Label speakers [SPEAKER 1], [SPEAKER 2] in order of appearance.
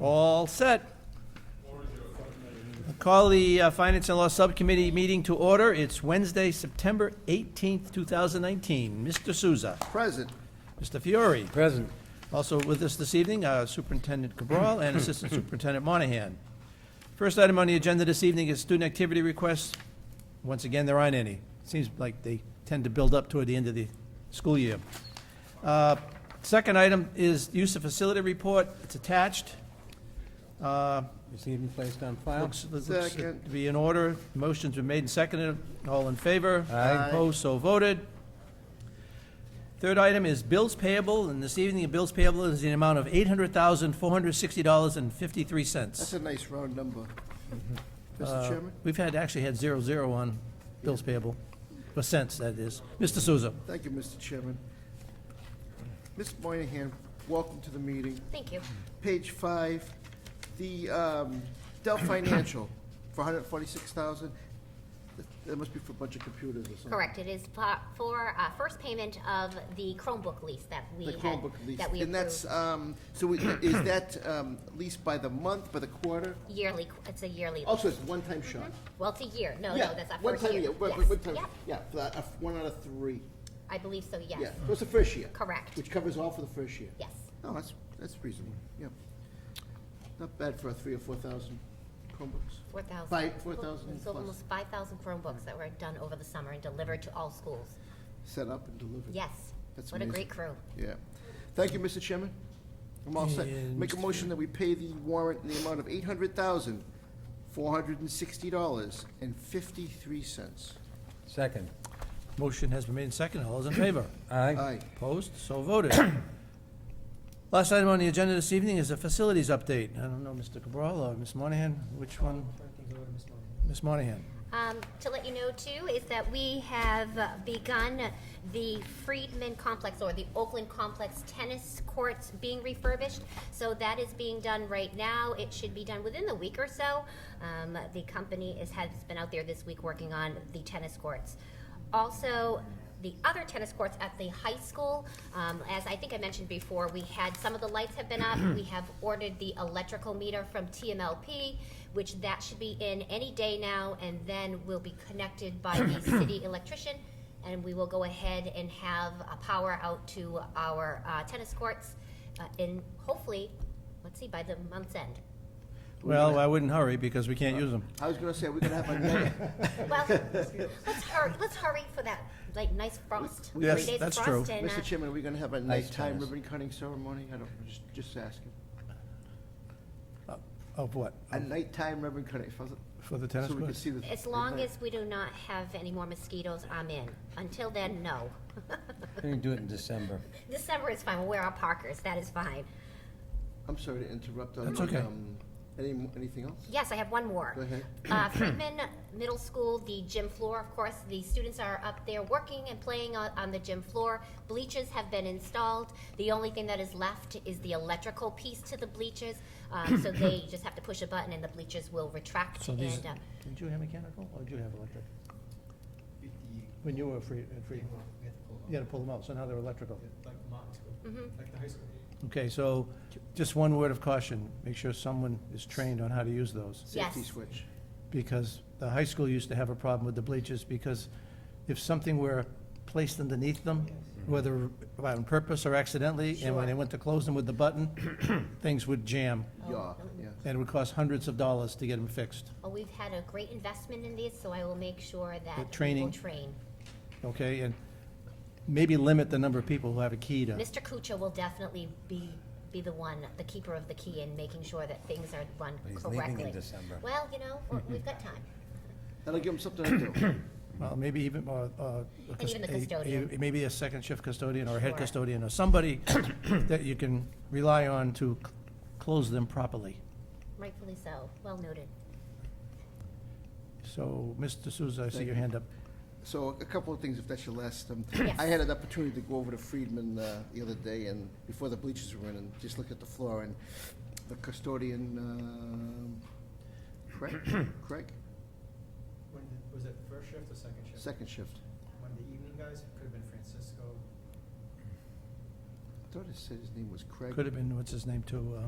[SPEAKER 1] All set. Call the uh, Finance and Law Subcommittee meeting to order. It's Wednesday, September 18th, 2019. Mr. Souza,
[SPEAKER 2] Present.
[SPEAKER 1] Mr. Fiore,
[SPEAKER 3] Present.
[SPEAKER 1] also with us this evening, uh, Superintendent Cabral and Assistant Superintendent Monahan. First item on the agenda this evening is student activity requests. Once again, there aren't any. Seems like they tend to build up toward the end of the school year. Uh, Second item is use of facility report. It's attached. Uh,
[SPEAKER 3] Received and placed on file.
[SPEAKER 1] Looks, looks to
[SPEAKER 2] Second.
[SPEAKER 1] be in order. Motions were made and seconded. All in favor?
[SPEAKER 2] Aye.
[SPEAKER 1] Opposed, so voted. Third item is bills payable, and this evening, the bills payable is the amount of eight hundred thousand, four hundred sixty dollars and fifty-three
[SPEAKER 2] That's
[SPEAKER 1] cents.
[SPEAKER 2] a nice round number. Mr. Chairman,
[SPEAKER 1] We've had, actually had zero, zero on bills payable, or cents, that is. Mr. Souza.
[SPEAKER 2] thank you, Mr. Chairman. Ms. Moynihan, welcome to the meeting.
[SPEAKER 4] Thank you.
[SPEAKER 2] Page five, the um, Dell Financial for 146000 That- That must be for a bunch of computers or something.
[SPEAKER 4] Correct, it is po- for uh, first payment of the Chromebook lease that we
[SPEAKER 2] The
[SPEAKER 4] had.
[SPEAKER 2] Chromebook lease.
[SPEAKER 4] That we
[SPEAKER 2] And that's,
[SPEAKER 4] approved
[SPEAKER 2] um, so we- is that um, leased by the month, by the quarter?
[SPEAKER 4] yearly, it's a yearly, lease.
[SPEAKER 2] Also, it's one-time shot.
[SPEAKER 4] well, it's a year, no,
[SPEAKER 2] Oh. Yeah,
[SPEAKER 4] no, that's our
[SPEAKER 2] one
[SPEAKER 4] first
[SPEAKER 2] time
[SPEAKER 4] year.
[SPEAKER 2] a one-
[SPEAKER 4] Yes.
[SPEAKER 2] one time-
[SPEAKER 4] Yep,
[SPEAKER 2] Yeah, for that, uh, one out of three.
[SPEAKER 4] I believe so,
[SPEAKER 2] Yeah,
[SPEAKER 4] yes,
[SPEAKER 2] so it's the first year.
[SPEAKER 4] Correct.
[SPEAKER 2] Which covers all for the first year.
[SPEAKER 4] yes.
[SPEAKER 2] Oh, that's, that's reasonable, yeah. Not bad for a three or four thousand Chromebooks.
[SPEAKER 4] Four thousand.
[SPEAKER 2] Five- 4,000
[SPEAKER 4] It's
[SPEAKER 2] plus.
[SPEAKER 4] almost five thousand Chromebooks that were done over the summer and delivered to all schools,
[SPEAKER 2] Set up and delivered.
[SPEAKER 4] yes.
[SPEAKER 2] That's
[SPEAKER 4] What a
[SPEAKER 2] amazing.
[SPEAKER 4] great crew.
[SPEAKER 2] Yeah. Thank you, Mr. Chairman. I'm all set.
[SPEAKER 1] And
[SPEAKER 2] Make a
[SPEAKER 1] Mr.
[SPEAKER 2] motion that we pay the warrant in the amount of eight hundred thousand, four hundred and sixty dollars and fifty-three cents.
[SPEAKER 3] Second.
[SPEAKER 1] Motion has been made and seconded. All those in favor?
[SPEAKER 3] Aye.
[SPEAKER 2] Aye.
[SPEAKER 1] Opposed? So voted. Last item on the agenda this evening is a facilities update. I don't know, Mr. Cabral or Ms. Monahan, which one? Ms. Monahan.
[SPEAKER 4] Um, To let you know too, is that we have uh, begun the Freedman Complex or the Oakland Complex tennis courts being refurbished. So that is being done right now. It should be done within the week or so. Um, The company is, has been out there this week working on the tennis courts. Also, the other tennis courts at the high school. Um, as I think I mentioned before, we had, some of the lights have been up. We have ordered the electrical meter from TMLP, which that should be in any day now, and then will be connected by the city electrician. And we will go ahead and have a power out to our uh, tennis courts uh, in, hopefully, let's see, by the month's end.
[SPEAKER 1] Well, I wouldn't hurry because we can't use them.
[SPEAKER 2] I was gonna say, we're gonna have another,
[SPEAKER 4] Well, let's hurry, let's hurry for that, like, nice frost.
[SPEAKER 2] We-
[SPEAKER 1] Yes,
[SPEAKER 4] Three days of
[SPEAKER 1] that's true.
[SPEAKER 4] frost and, uh,
[SPEAKER 2] Mr. Chairman, are we gonna have a nighttime
[SPEAKER 3] tennis.
[SPEAKER 2] ribbon cutting ceremony? I don't, just, just asking.
[SPEAKER 1] Uh, Of what?
[SPEAKER 2] A nighttime ribbon cutting, so
[SPEAKER 1] For the Um, tennis
[SPEAKER 2] we can
[SPEAKER 1] courts?
[SPEAKER 2] see the.
[SPEAKER 4] As long as we do not have any more mosquitoes, I'm in. Until then, no.
[SPEAKER 3] We can do it in December.
[SPEAKER 4] December is fine, we'll wear our parkers, that is fine.
[SPEAKER 2] I'm sorry to interrupt. on
[SPEAKER 1] That's
[SPEAKER 2] the,
[SPEAKER 1] okay.
[SPEAKER 2] um, Any, anything else?
[SPEAKER 4] Yes, I have one more.
[SPEAKER 2] Go ahead.
[SPEAKER 4] Uh, Freeman Middle School, the gym floor, of course, the students are up there working and playing on, on the gym floor. Bleachers have been installed. The only thing that is left is the electrical piece to the bleachers. Um, so they just have to push a button and the bleachers will retract
[SPEAKER 1] So these,
[SPEAKER 4] and, uh,
[SPEAKER 1] did you have mechanical or did you have electric? When you were free, at free, you had to pull them out, so now they're electrical.
[SPEAKER 5] like mocked, like the high school.
[SPEAKER 1] Okay, so just one word of caution, make sure someone is trained on how to use those.
[SPEAKER 4] Yes.
[SPEAKER 2] Safety switch.
[SPEAKER 1] because the high school used to have a problem with the bleachers, because if something were placed underneath them,
[SPEAKER 2] Mm-hmm.
[SPEAKER 1] whether on purpose or accidentally, and when they
[SPEAKER 4] Sure.
[SPEAKER 1] went to close them with the button, things would jam,
[SPEAKER 4] Oh,
[SPEAKER 2] Yeah, yeah.
[SPEAKER 1] and it would cost hundreds of dollars to get them fixed,
[SPEAKER 4] well, we've had a great investment in these, so I will make sure that
[SPEAKER 1] The
[SPEAKER 4] we will
[SPEAKER 1] training.
[SPEAKER 4] train.
[SPEAKER 1] okay? And maybe limit the number of people who have a key to,
[SPEAKER 4] Mr. Kucha will definitely be, be the one, the keeper of the key and making sure that things are run
[SPEAKER 3] But he's leaving in
[SPEAKER 4] correctly.
[SPEAKER 3] December.
[SPEAKER 4] Well, you know, we- we've got time.
[SPEAKER 2] That'll give them something to do.
[SPEAKER 1] well, maybe even, uh, uh, a cus-
[SPEAKER 4] even the
[SPEAKER 1] a- a-
[SPEAKER 4] custodian.
[SPEAKER 1] Maybe a second shift custodian or a head
[SPEAKER 4] Sure.
[SPEAKER 1] custodian, or somebody that you can rely on to c- close them properly.
[SPEAKER 4] Rightfully so, well noted.
[SPEAKER 1] So, Mr. Souza, I see
[SPEAKER 2] Thank
[SPEAKER 1] your
[SPEAKER 2] you.
[SPEAKER 1] hand up.
[SPEAKER 2] So a couple of things, if that's your last. um,
[SPEAKER 4] Yes.
[SPEAKER 2] I had an opportunity to go over to Friedman uh, the other day and before the bleachers were in and just look at the floor and the custodian, um, Craig, Craig,
[SPEAKER 5] When did, was it first shift or second shift?
[SPEAKER 2] second shift.
[SPEAKER 5] One of the evening guys, could have been Francisco,
[SPEAKER 2] I thought it said his name was Craig.
[SPEAKER 1] Could have been, what's his name, too, uh,